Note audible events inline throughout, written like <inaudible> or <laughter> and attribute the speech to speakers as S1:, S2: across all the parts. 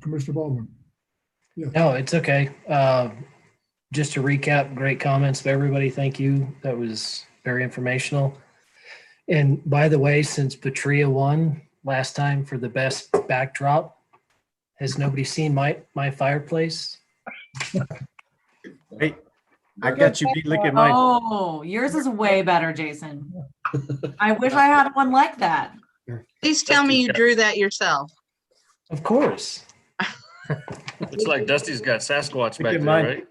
S1: Commissioner Baldwin.
S2: No, it's okay. Uh, Just to recap, great comments by everybody. Thank you. That was very informational. And by the way, since Patria won last time for the best backdrop, has nobody seen my, my fireplace?
S3: I got you beat licking my,
S4: Oh, yours is way better, Jason. I wish I had one like that.
S5: Please tell me you drew that yourself.
S2: Of course.
S6: Looks like Dusty's got
S3: Look
S6: Sasquatch back
S3: at
S6: there,
S3: mine.
S6: right?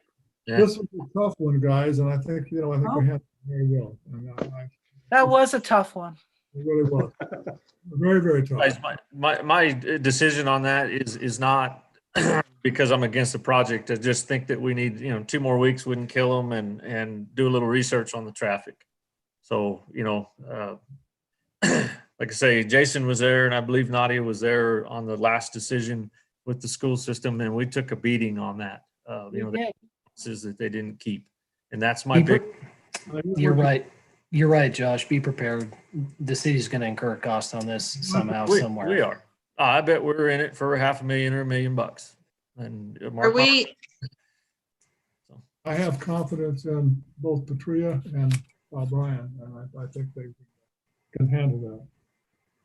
S6: Yeah.
S1: This was a tough one, guys, and I think, you know, I think we handled it very well. And I- I-
S7: That was a tough one.
S1: it Really was. Very, very tough.
S6: Guys, My, my, my decision on that is, is not <clears throat> because I'm against the project. I just think that we need, you know, two more weeks wouldn't kill them and, and do a little research on the traffic. So, you know, uh, <clears throat> like I say, Jason was there and I believe Nadia was there on the last decision with the school system and we took a beating on that. Uh, you know, the promises that they didn't keep. And that's my
S2: Be pre-
S6: big,
S2: You're
S6: Mm-hmm.
S2: right. You're right, Josh. Be prepared. The city's going to incur a cost on this somehow,
S6: Mm-hmm. We-
S2: somewhere.
S6: We are. Ah, I bet we're in it for half a million or a million bucks. And uh,
S5: Are
S6: Mark,
S5: we,
S1: I have confidence in both Patria and O'Brien, and I, I think they can handle that.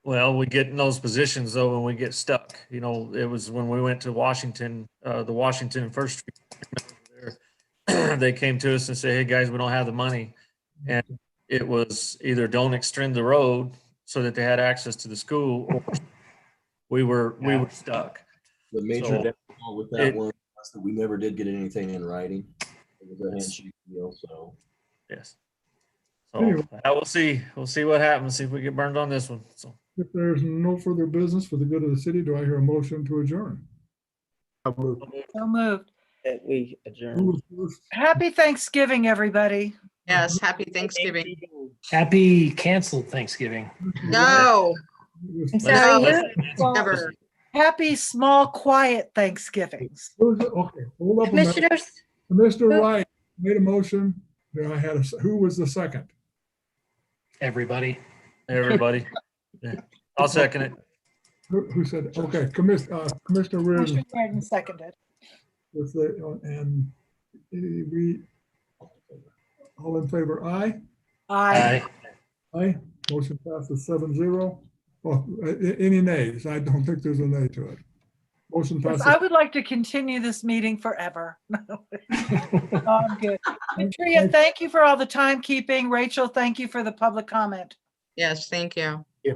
S6: well, we get in those positions though when we get stuck. You know, it was when we went to Washington, uh, the Washington First Street. over there, <clears throat> They came to us and said, hey, guys, we don't have the money. And it was either don't extend the road so that they had access to the school or we were, we
S2: Yeah.
S6: were stuck.
S8: The major
S6: So,
S8: downfall with that
S6: it-
S8: one was that we never did get anything in writing. It was a handshake deal, so.
S6: Yes. So I will see. We'll see what happens. See if we get burned on this one. So
S1: If there's no further business for the good of the city, do I hear a motion to adjourn?
S7: So moved.
S9: that we adjourn.
S1: Who was first?
S7: Happy Thanksgiving, everybody.
S5: yes, happy Thanksgiving.
S2: Happy canceled Thanksgiving.
S5: No,
S1: Who was-
S6: Let's-
S5: So
S6: let's-
S5: never.
S7: Happy small, quiet Thanksgivings.
S1: who was- Okay, hold up a minute.
S3: commissioners,
S1: Mr. Wright made a motion. Then I had a, s- who was the second?
S2: Everybody,
S6: Everybody. Yeah. I'll second it.
S1: Who, who said, okay, Commissioner, uh, Commissioner Reardon.
S7: Motion made and Seconded.
S1: with the, and eh, we, all in favor, aye?
S7: I,
S2: Aye.
S1: Aye. Motion passes seven zero. Oh, a- a- any nays? I don't think there's a nay to it. Motion
S7: I
S1: passes.
S7: would like to continue this meeting forever. <laughs> No, I'm good. Patria, thank you for all the timekeeping. Rachel, thank you for the public comment.
S5: Yes, thank you.